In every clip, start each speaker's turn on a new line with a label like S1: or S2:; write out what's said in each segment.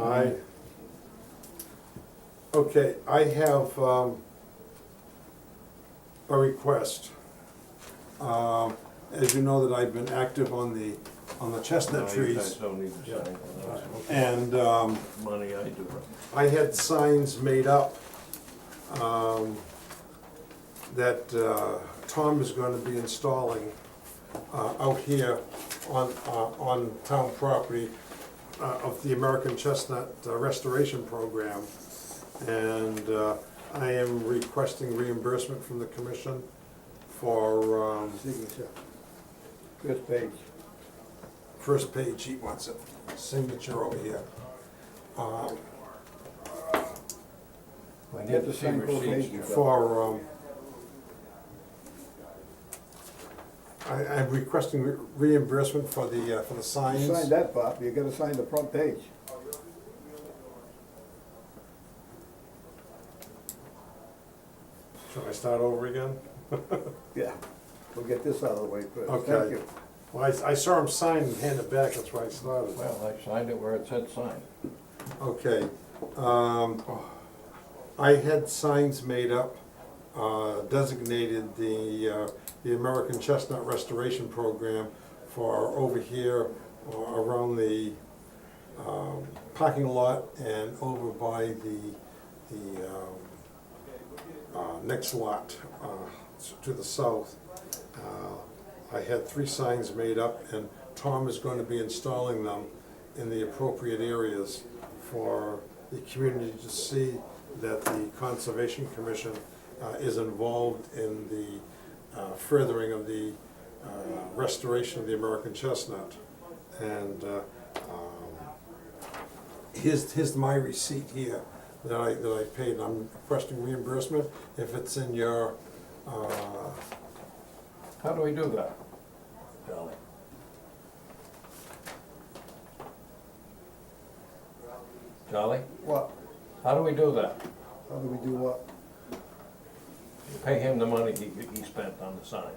S1: Aye. Okay, I have um, a request. Um, As you know, that I've been active on the, on the
S2: No,
S1: chestnut
S2: Oh, you
S1: trees.
S2: guys don't need to
S1: Yeah.
S2: sign for that.
S1: And um,
S2: Money, I do it.
S1: I had signs made up um, that uh, Tom is going to be installing uh, out here on, uh, on town property uh, of the American Chestnut uh, Restoration Program. And uh, I am requesting reimbursement from the commission for um,
S3: Signature. First page.
S1: first page, he wants a signature over here. Um,
S3: I need to sign both
S2: receipts.
S3: pages.
S1: for, um, I, I'm requesting re- reimbursement for the, uh, for the
S3: You sign
S1: signs.
S3: that, Bob, you gotta sign the front page.
S1: Should I start over again?
S3: Yeah. We'll get this out of the way first,
S1: Okay.
S3: thank you.
S1: Well, I, I saw him sign and hand it back, that's why I started.
S2: Well, I signed it where it said sign.
S1: Okay, um, I had signs made up, uh, designated the, uh, the American Chestnut Restoration Program for over here, or around the, um, parking lot and over by the, the, um, uh, next lot, uh, to the south. Uh, I had three signs made up, and Tom is going to be installing them in the appropriate areas for the community to see that the Conservation Commission uh, is involved in the uh, furthering of the uh, restoration of the American chestnut. And uh, um, here's, here's my receipt here that I, that I paid, and I'm requesting reimbursement if it's in your, uh,
S2: How do we do that? Charlie? Charlie,
S3: What,
S2: how do we do that?
S3: how do we do what?
S2: You Pay him the money he, he spent on the signs.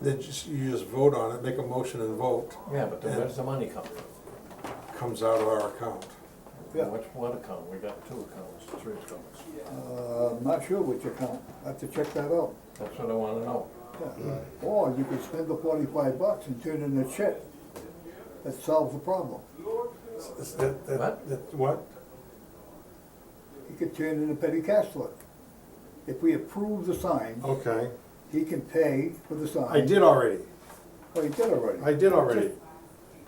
S1: they just, you just vote on it, make a motion and vote,
S2: Yeah, but then where's the money come from?
S1: comes out of our account.
S3: Yeah.
S2: Which one account? We got two accounts, three accounts.
S3: Uh, I'm not sure which account, I have to check that out.
S2: That's what I wanna know.
S3: Yeah.
S1: Mm.
S3: Or you could spend the forty-five bucks and turn in a check. That solves the problem.
S1: Is that- that-
S2: What?
S1: that- What?
S3: He could turn in a petty cash flow. If we approve the sign,
S1: Okay,
S3: he can pay for the sign.
S1: I did already,
S3: Oh, he did already.
S1: I did already.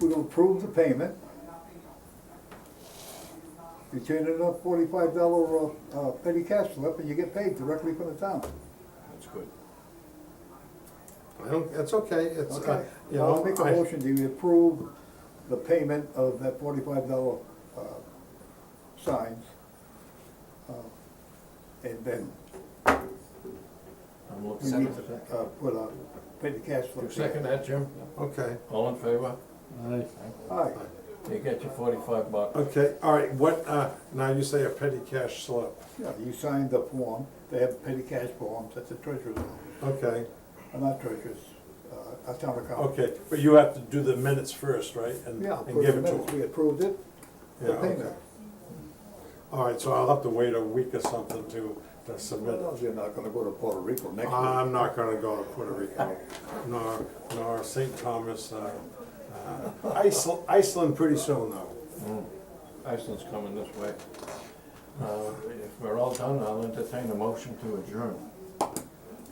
S3: We're gonna approve the payment. You turn in a forty-five dollar, uh, petty cash slip and you get paid directly from the town.
S2: That's good.
S1: I don't, that's okay, it's, uh,
S3: Okay,
S1: you know.
S3: I'll make a
S1: I-
S3: motion to approve the payment of that forty-five dollar, uh, signs. uh, And then
S2: I'm
S3: we
S2: looking
S3: need
S2: at
S3: to,
S2: it.
S3: uh, put a petty cash
S2: You
S3: slip.
S2: second that, Jim?
S1: Okay,
S2: All in favor?
S3: Aye,
S2: You get your forty-five bucks.
S1: okay, all right, what, uh, now you say a petty cash slip,
S3: yeah, you signed the form, they have petty cash forms, that's the treasurer's, office.
S1: okay,
S3: Uh, not treasurer's, uh, a town account.
S1: okay, but you have to do the minutes first, right? And
S3: Yeah,
S1: And give it to
S3: approved
S1: them.
S3: it. we approved it, the
S1: Yeah,
S3: payment.
S1: okay. All right, so I'll have to wait a week or something to, to submit it.
S3: Well, You're not gonna go to Puerto Rico next week.
S1: I'm not gonna go to Puerto Rico, nor, nor St. Thomas, uh, uh, Iceland, Iceland pretty soon though.
S2: Iceland's coming this way. Uh, If we're all done, I'll entertain a motion to adjourn.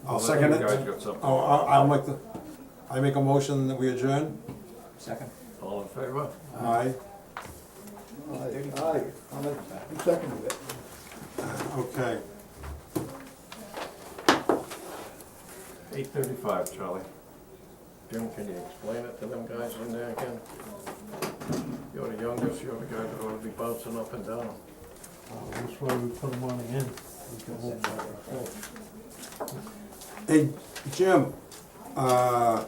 S1: I'll second it.
S2: You guys got something?
S1: Oh, I- I'll make the, I make a motion that we adjourn?
S4: Second.
S2: All in favor?
S1: Aye,
S3: Aye, aye, I'm in, you seconded it.
S1: okay.
S2: Eight thirty-five, Charlie. Jim, can you explain it to them guys in there again? You're the youngest, you're the guy that ought to be bouncing up and down.
S4: That's why we put them on again.
S1: Hey, Jim, uh,